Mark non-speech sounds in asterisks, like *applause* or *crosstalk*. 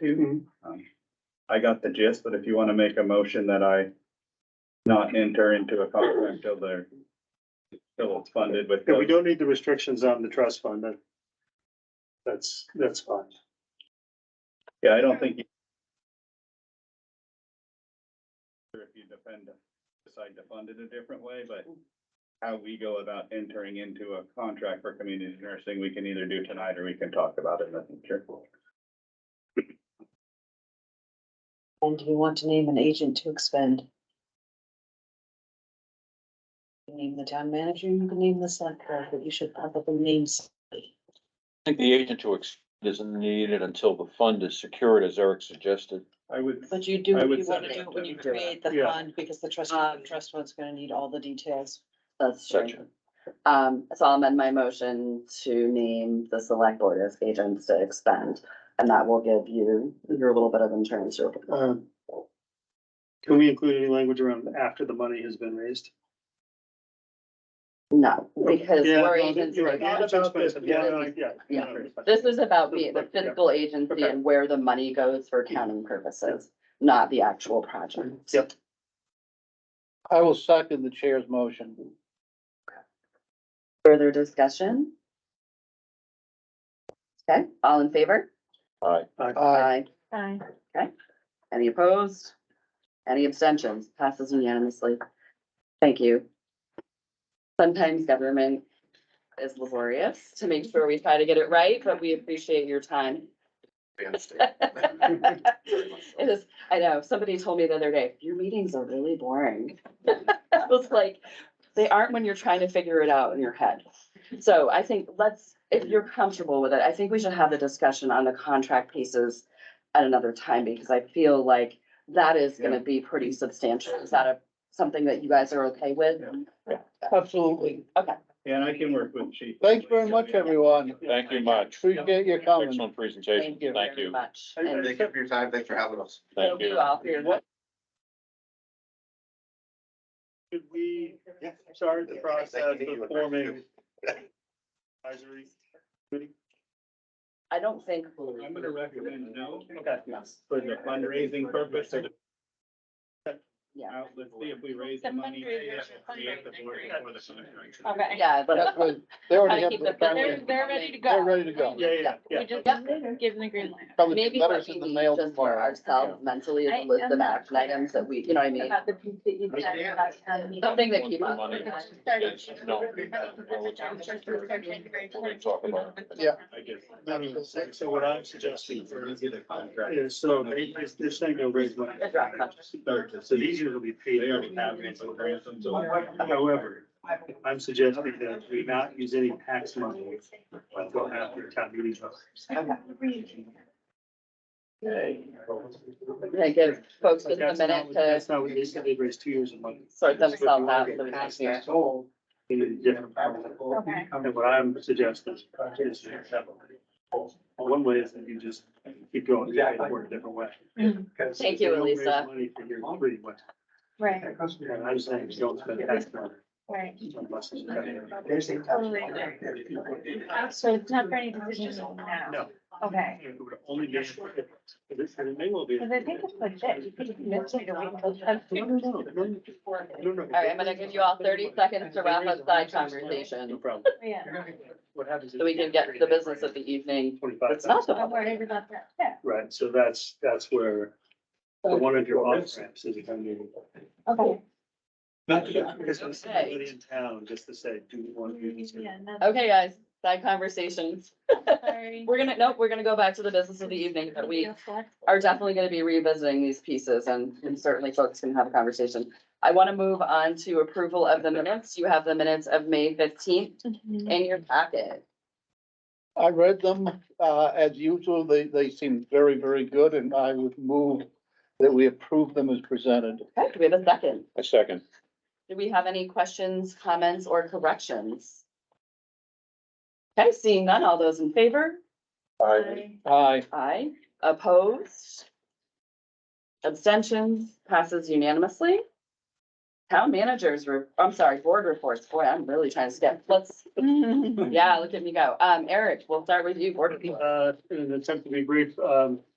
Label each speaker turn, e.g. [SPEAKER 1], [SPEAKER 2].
[SPEAKER 1] too. Um, I got the gist, but if you wanna make a motion that I not enter into a contract till they're, till it's funded with.
[SPEAKER 2] Yeah, we don't need the restrictions on the trust fund, that. That's, that's fine.
[SPEAKER 1] Yeah, I don't think. you- If you depend, decide to fund it a different way, but how we go about entering into a contract for community nursing, we can either do tonight or we can talk about it in the future.
[SPEAKER 3] And do we want to name an agent to expend? You Name the town manager, you can name the select board, but you should probably name somebody.
[SPEAKER 4] I think the agent to ex isn't needed until the fund is secured, as Eric suggested.
[SPEAKER 1] I would.
[SPEAKER 3] But you do,
[SPEAKER 1] I would
[SPEAKER 3] you wanna
[SPEAKER 1] second
[SPEAKER 3] do it when you
[SPEAKER 1] that.
[SPEAKER 3] create the
[SPEAKER 2] Yeah.
[SPEAKER 3] fund, because the trust,
[SPEAKER 5] Um,
[SPEAKER 3] the trust fund's gonna need all the details.
[SPEAKER 6] That's
[SPEAKER 4] Section.
[SPEAKER 6] true. Um, so I'll amend my motion to name the select board as agents to expend, and that will give you your little bit of insurance. your-
[SPEAKER 2] Um, Can we include any language around after the money has been raised?
[SPEAKER 6] No, because
[SPEAKER 2] Yeah,
[SPEAKER 6] we're
[SPEAKER 2] no,
[SPEAKER 6] agents.
[SPEAKER 2] you're right.
[SPEAKER 6] right now.
[SPEAKER 2] Not about this, yeah, no, yeah,
[SPEAKER 6] Yeah.
[SPEAKER 2] no, no.
[SPEAKER 6] This is about the, the fiscal agency
[SPEAKER 2] Okay.
[SPEAKER 6] and where the money goes for accounting purposes, not the actual project.
[SPEAKER 2] Mm-hmm. Yep.
[SPEAKER 7] I will second the chair's motion.
[SPEAKER 6] Further discussion? Okay, all in favor?
[SPEAKER 4] All right,
[SPEAKER 7] Aye.
[SPEAKER 3] Aye.
[SPEAKER 6] Okay, any opposed? Any abstentions? Passes unanimously. Thank you. Sometimes government is laborious to make sure we try to get it right, but we appreciate your time.
[SPEAKER 1] *laughs*
[SPEAKER 6] It is, I know, somebody told me the other day, your meetings are really boring. *laughs* I was like, they aren't when you're trying to figure it out in your head. So I think let's, if you're comfortable with it, I think we should have the discussion on the contract pieces at another time, because I feel like that is gonna be pretty substantial. Is that a, something that you guys are okay with?
[SPEAKER 7] Absolutely.
[SPEAKER 1] Yeah, and I can work with chief.
[SPEAKER 7] Thanks very much, everyone.
[SPEAKER 4] thank you much.
[SPEAKER 7] Appreciate your comments.
[SPEAKER 4] Excellent presentation.
[SPEAKER 6] Thank you
[SPEAKER 4] Thank
[SPEAKER 6] very
[SPEAKER 4] you.
[SPEAKER 6] much.
[SPEAKER 2] I- I
[SPEAKER 6] And
[SPEAKER 8] Thank you for your time. Thanks for having us.
[SPEAKER 6] thank
[SPEAKER 4] Thank
[SPEAKER 6] you
[SPEAKER 4] you.
[SPEAKER 6] all for your.
[SPEAKER 2] Should we start the process of forming advisory?
[SPEAKER 6] I don't think.
[SPEAKER 1] I'm gonna recommend no.
[SPEAKER 2] Okay.
[SPEAKER 1] For the fundraising purpose. of-
[SPEAKER 6] Yeah.
[SPEAKER 1] Out, let's see if we raise the
[SPEAKER 5] The
[SPEAKER 1] money.
[SPEAKER 5] fundraisers
[SPEAKER 1] to
[SPEAKER 5] are
[SPEAKER 1] create the
[SPEAKER 5] fundraising,
[SPEAKER 1] board
[SPEAKER 5] right?
[SPEAKER 1] for the fundraising.
[SPEAKER 5] Okay.
[SPEAKER 6] Yeah, but
[SPEAKER 7] That's what, they already
[SPEAKER 5] Gotta
[SPEAKER 7] have.
[SPEAKER 5] keep
[SPEAKER 7] the
[SPEAKER 5] it- but They're,
[SPEAKER 7] apparently-
[SPEAKER 5] they're ready to go.
[SPEAKER 7] They're ready to go.
[SPEAKER 2] Yeah, yeah, yeah.
[SPEAKER 5] We just
[SPEAKER 6] Yep.
[SPEAKER 5] give them the green light.
[SPEAKER 7] Probably
[SPEAKER 6] maybe
[SPEAKER 7] get
[SPEAKER 6] what
[SPEAKER 7] letters
[SPEAKER 6] we
[SPEAKER 7] in the
[SPEAKER 6] need
[SPEAKER 7] mail
[SPEAKER 6] just for
[SPEAKER 7] tomorrow.
[SPEAKER 6] ourselves mentally is
[SPEAKER 5] I
[SPEAKER 6] a list
[SPEAKER 5] am
[SPEAKER 6] of
[SPEAKER 5] not
[SPEAKER 6] action items that we, you know what I mean?
[SPEAKER 5] About the piece that you said about, um,
[SPEAKER 6] Something that keep on.
[SPEAKER 4] Money.
[SPEAKER 6] *laughs*
[SPEAKER 5] started-
[SPEAKER 4] No.
[SPEAKER 5] We'll
[SPEAKER 4] talk about it.
[SPEAKER 7] Yeah.
[SPEAKER 1] I guess.
[SPEAKER 2] So what I'm suggesting is, so they, they're saying they'll raise money. So these are gonna be paid.
[SPEAKER 1] They already have it, so grant them, so-
[SPEAKER 2] However, I'm suggesting that we not use any tax money until after town meeting.
[SPEAKER 6] Yeah, give folks just a
[SPEAKER 2] That's not
[SPEAKER 6] minute
[SPEAKER 2] what-
[SPEAKER 6] to
[SPEAKER 2] That's not what they said, they raised two years of money.
[SPEAKER 6] sort themselves out. so we can-
[SPEAKER 2] In a different part.
[SPEAKER 5] Okay.
[SPEAKER 2] And what I'm suggesting is one way is that you just keep going, you gotta work a different way.
[SPEAKER 6] Thank you,
[SPEAKER 2] They don't raise
[SPEAKER 6] Elisa.
[SPEAKER 2] Money for your three, but
[SPEAKER 5] Right,
[SPEAKER 2] and I'm saying you don't spend tax money.
[SPEAKER 5] right.
[SPEAKER 2] unless it's better.
[SPEAKER 5] So it's not for any decisions now?
[SPEAKER 2] No.
[SPEAKER 5] Okay.
[SPEAKER 2] It would only be, if it- if it- and it may well be.
[SPEAKER 5] Cause I think it's legit. You could convince me to wait until.
[SPEAKER 2] No, no, no, no, no. No, no.
[SPEAKER 6] All right, I'm gonna give you all thirty seconds to wrap up side
[SPEAKER 2] No
[SPEAKER 6] conversation,
[SPEAKER 2] problem.
[SPEAKER 5] Yeah.
[SPEAKER 2] What happens? is-
[SPEAKER 6] so we can get to the business of the evening.
[SPEAKER 2] Twenty-five.
[SPEAKER 6] It's not the
[SPEAKER 5] I'm
[SPEAKER 6] public.
[SPEAKER 5] worried about that. Yeah,
[SPEAKER 2] Right, so that's, that's where
[SPEAKER 6] Oh.
[SPEAKER 2] the one of your off ramps is coming.
[SPEAKER 5] okay.
[SPEAKER 2] Not because there's somebody in town just to say, do you want to do this?
[SPEAKER 5] Yeah, no,
[SPEAKER 6] Okay, guys, side conversations.
[SPEAKER 5] sorry.
[SPEAKER 6] We're gonna, nope, we're gonna go back to the business of the evening, but we
[SPEAKER 5] Feel flexible.
[SPEAKER 6] are definitely gonna be revisiting these pieces and, and certainly folks can have a conversation. I wanna move on to approval of the minutes. You have the minutes of May fifteenth
[SPEAKER 5] Mhm.
[SPEAKER 6] in your packet.
[SPEAKER 7] I read them, uh, as usual. They, they seem very, very good and I would move that we approve them as presented.
[SPEAKER 6] Okay, do we have a second?
[SPEAKER 4] A second.
[SPEAKER 6] Do we have any questions, comments, or corrections? Okay, seeing none, all those in favor?
[SPEAKER 5] Bye.
[SPEAKER 7] Aye.
[SPEAKER 6] Aye. Opposed? Abstentions? Passes unanimously. Town managers, re- I'm sorry, board reports. Boy, I'm really trying to skip. Let's, *laughs* yeah, look at me go. Um, Eric, we'll start with you, board report.
[SPEAKER 2] Uh, in an attempt to be brief, um,